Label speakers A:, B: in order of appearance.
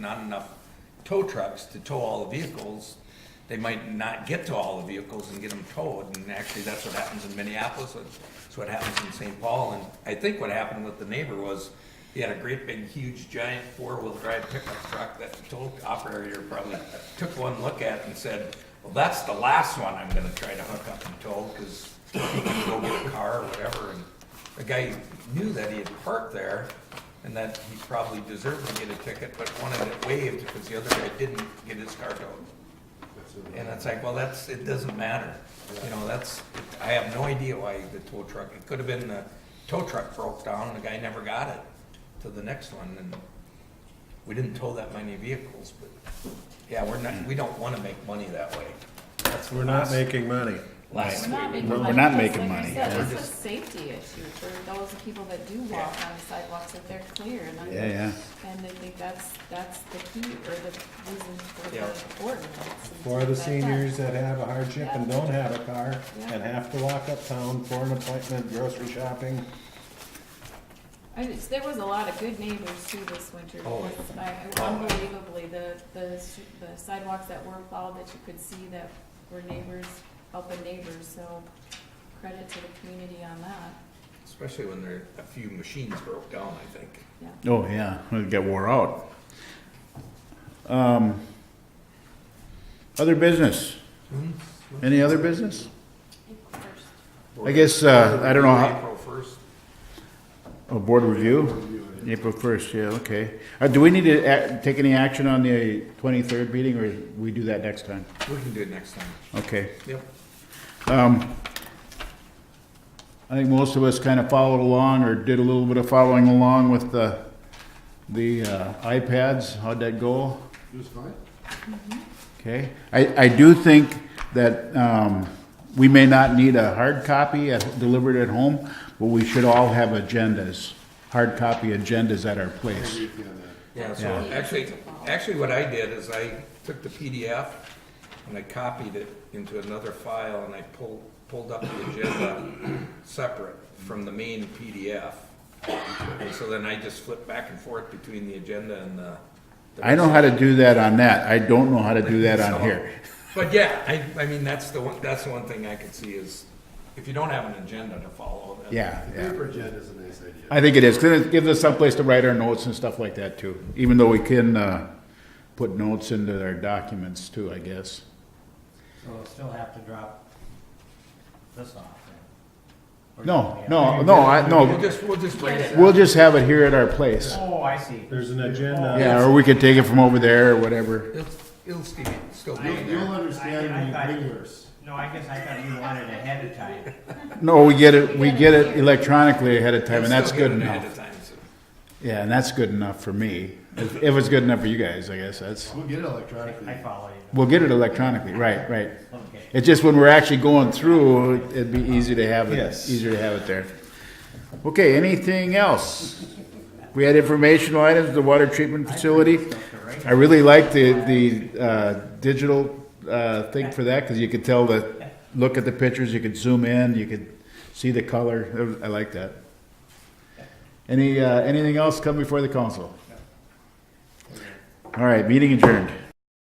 A: not enough tow trucks to tow all the vehicles, they might not get to all the vehicles and get them towed, and actually, that's what happens in Minneapolis, and it's what happens in St. Paul, and I think what happened with the neighbor was, he had a great big, huge, giant four-wheel-drive pickup truck that the tow operator probably took one look at and said, well, that's the last one I'm gonna try to hook up and tow, because he can go get a car or whatever, and the guy knew that he had parked there, and that he probably deserved to get a ticket, but wanted it waived because the other guy didn't get his car towed. And it's like, well, that's, it doesn't matter. You know, that's, I have no idea why the tow truck, it could have been the tow truck broke down, the guy never got it to the next one, and we didn't tow that many vehicles, but, yeah, we're not, we don't wanna make money that way. That's
B: We're not making money.
A: last
C: We're
A: week.
C: not making
D: We're-
C: money.
D: we're not
C: because
D: making
C: like I
D: money.
C: said,
D: We're
C: It's a safety issue for those people that do walk on the sidewalks, that they're clear and under.
D: Yeah, yeah.
C: And I think that's, that's the key or the reason for
A: Yeah.
C: the ordinance. and
B: For the
C: stuff like that.
B: seniors that have a hardship and don't have a car and have to walk uptown for an appointment, grocery shopping.
C: I just, there was a lot of good neighbors too this winter.
A: Oh,
C: because I-
A: Oh.
C: Unbelievably, the, the, sh- the sidewalks that were plowed that you could see that were neighbors, helping neighbors, so credit to the community on that,
A: Especially when there, a few machines broke down, I think.
C: yeah.
D: Oh yeah, it got wore out. Um, other business? Any other business? I guess uh, I don't know. How,
A: April first.
D: oh, board review, April first. Yeah, okay. Uh, do we need to act, take any action on the twenty third meeting, or we do that next time?
A: We can do it next time.
D: Okay.
A: Yep.
D: Um, I think most of us kind of followed along or did a little bit of following along with the, the uh, iPads. How'd that go? It was fine. Okay. I, I do think that um, we may not need a hard copy at, delivered at home, but we should all have agendas, hard copy agendas at our place.
A: Yeah, so
D: Yeah.
A: actually, actually what I did is I took the PDF and I copied it into another file and I pulled, pulled up the agenda separate from the main PDF. And so then I just flipped back and forth between the agenda and the. the
D: I know how to do that on that. I don't know how to do that on
A: So-
D: here.
A: But yeah, I, I mean, that's the one, that's the one thing I could see is if you don't have an agenda to follow. then-
D: Yeah, yeah.
E: Paper agenda is a nice idea.
D: I think it is, 'cause it gives us someplace to write our notes and stuff like that too, even though we can, uh, put notes into our documents too, I guess.
F: So we'll still have to drop this off then? Or
D: No,
F: do we have-
D: no, no, I,
A: We'll
D: no,
A: just, we'll just bring it.
D: we'll just have it here at our place.
F: Oh, I see.
B: There's an agenda.
D: Yeah, or we could take it from over there or whatever.
A: It'll, it'll still be, still be
E: You'll,
A: in
E: you'll
A: there.
E: understand
F: I- I thought-
E: when you bring yours.
F: No, I guess I thought you wanted ahead of time.
D: No, we get it, we get it electronically ahead of time and that's
A: Still
D: good
A: get it ahead of
D: enough.
A: time, so.
D: Yeah, and that's good enough for me. If if it's good enough for you guys, I guess that's,
E: We'll get it
F: I
E: electronically.
F: follow you.
D: we'll get it electronically, right, right.
F: Okay.
D: It's just when we're actually going through, it'd be easy to have it,
B: Yes.
D: easier to have it there. Okay, anything else? We had informational items, the water treatment facility. I really liked the, the, uh, digital, uh, thing for that, cause you could tell the, look at the pictures, you could zoom in, you could see the color. I like that. Any, uh, anything else come before the council? All right, meeting adjourned.